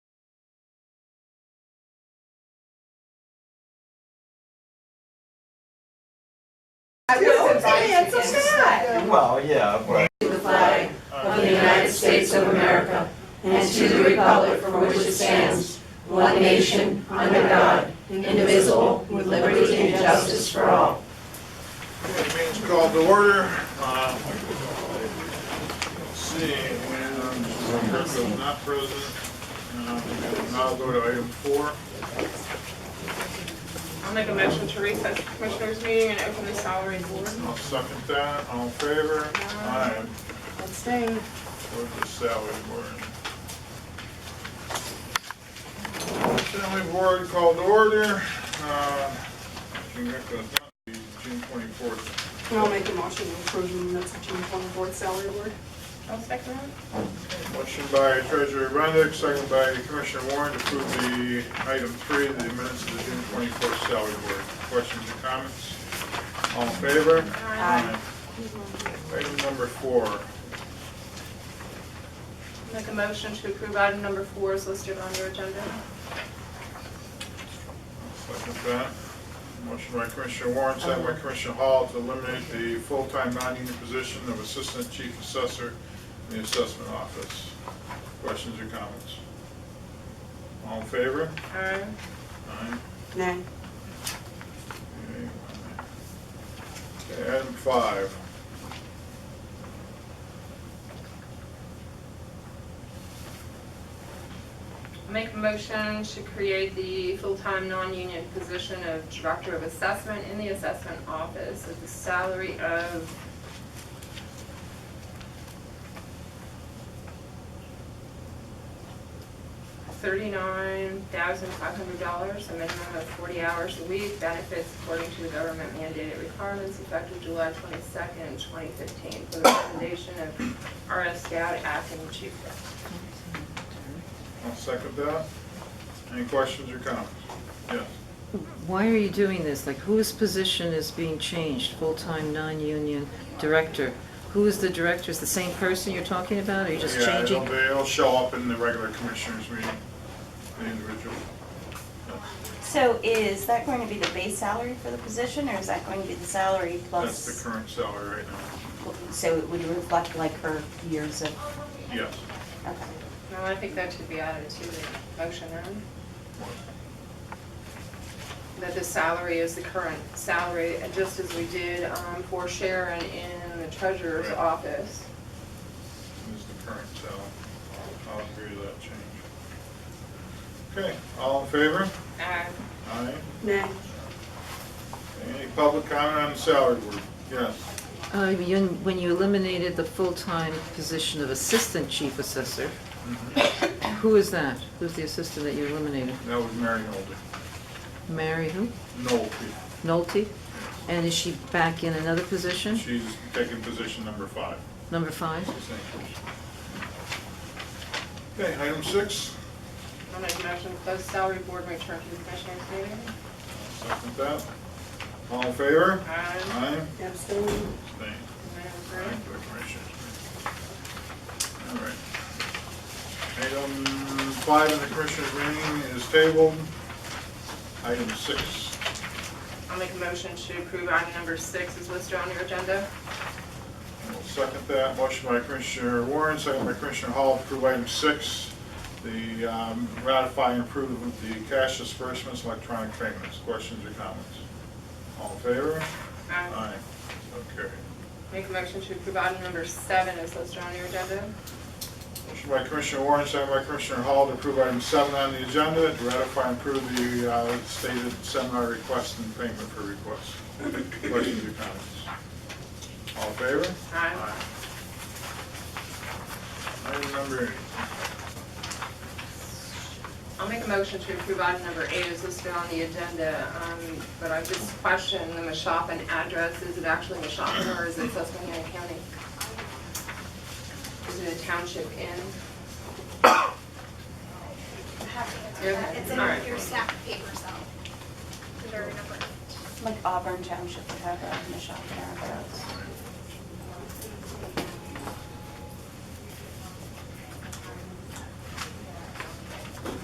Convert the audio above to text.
I No, was invited it's to sad. him. Well, yeah, but to the flag of the United States of America and to the republic for which it stands, one nation, under God, indivisible, with liberty and justice for all. Meeting's called to order. Uh, Let's see, when um, Kirk was not present, uh, now go to item four. I'll make a motion to recess the commissioners meeting and open the salary board. I'll second that, all in favor? Aye. Abstain. Go to the salary board. Salary board called to order. Uh, June Kirk was not, the June twenty-fourth. I'll make a motion to approve the minutes of June twenty-fourth salary board. I'll second Motion by Treasurer Rendick, second by Commissioner Warren to approve the item three, the minutes of the June twenty-fourth salary board. Questions or comments? All in favor? that. Aye. Item number four. Make a motion to approve item number four is listed on your agenda. Second that. Motion by Commissioner Warren, second by Commissioner Hall to eliminate the full-time non-union position of Assistant Chief Assessor in the Assessment Office. Questions or comments? All in favor? Aye. Aye. Nay. Okay, Item five. Make a motion to create the full-time, non-union position of Director of Assessment in the Assessment Office at the salary of... Thirty-nine thousand five hundred dollars, a minimum of forty hours a week, benefits according to the government mandated requirements effective July twenty-second, twenty fifteen, for the recommendation of RS Scout acting chief. I'll second that. Any questions or comments? Yes. Why are you doing this? Like, whose position is being changed? Full-time, non-union director? Who is the director? Is the same person you're talking about? Are you just Yeah, it'll changing? be, it'll show up in the regular commissioners meeting, the individual. So is that going to be the base salary for the position, or is that going to be the salary That's the plus? current salary right now. So it would reflect like her years of, Yes. okay. No, I think that should be added to the motion, then, that the salary is the current salary, and just as we did um, for Sharon in the treasurer's Right. office. This is the current salary. I'll agree to that change. Okay, all in favor? Uh, Aye. Nay. Any public comment on the salary board? Yes. Uh, you- When you eliminated the full-time position of assistant chief assessor, who is that? Who's the assistant that you eliminated? That was Mary Holden. Mary who? No, Nolte? And is she back in another position? she's taking position number five. Number five? Okay, item six, I'll make a motion to close salary board, and return to the commissioners meeting. second that. All in favor? Aye. Aye. Abstain. Abstain. Aye, Madam for the commissioners. All right. Item five in the commissioners meeting is tabled. Item six, Clerk. I'll make a motion to approve item number six is listed on your agenda. I will second that. Motion by Commissioner Warren, second by Commissioner Hall, to approve item six, the um, ratify and approve of the cash disbursements, electronic payments. Questions or comments? All in favor? Uh, Aye. So carried. Make a motion to approve item number seven is listed on your agenda. Motion by Commissioner Warren, second by Commissioner Hall to approve item seven on the agenda, to ratify and approve the uh, stated seminar request and payment for request. Questions or comments? All in favor? Aye. Item number eight. I'll make a motion to approve item number eight is listed on the agenda, um, but I just question the Mashopin address. Is it actually Mashopin or is it Susquehanna County? Is it a township inn? I have to You're answer that. okay. It's All right. in your stack paper, so. Your number. Like Auburn Township would have a Michelle Karen Rose.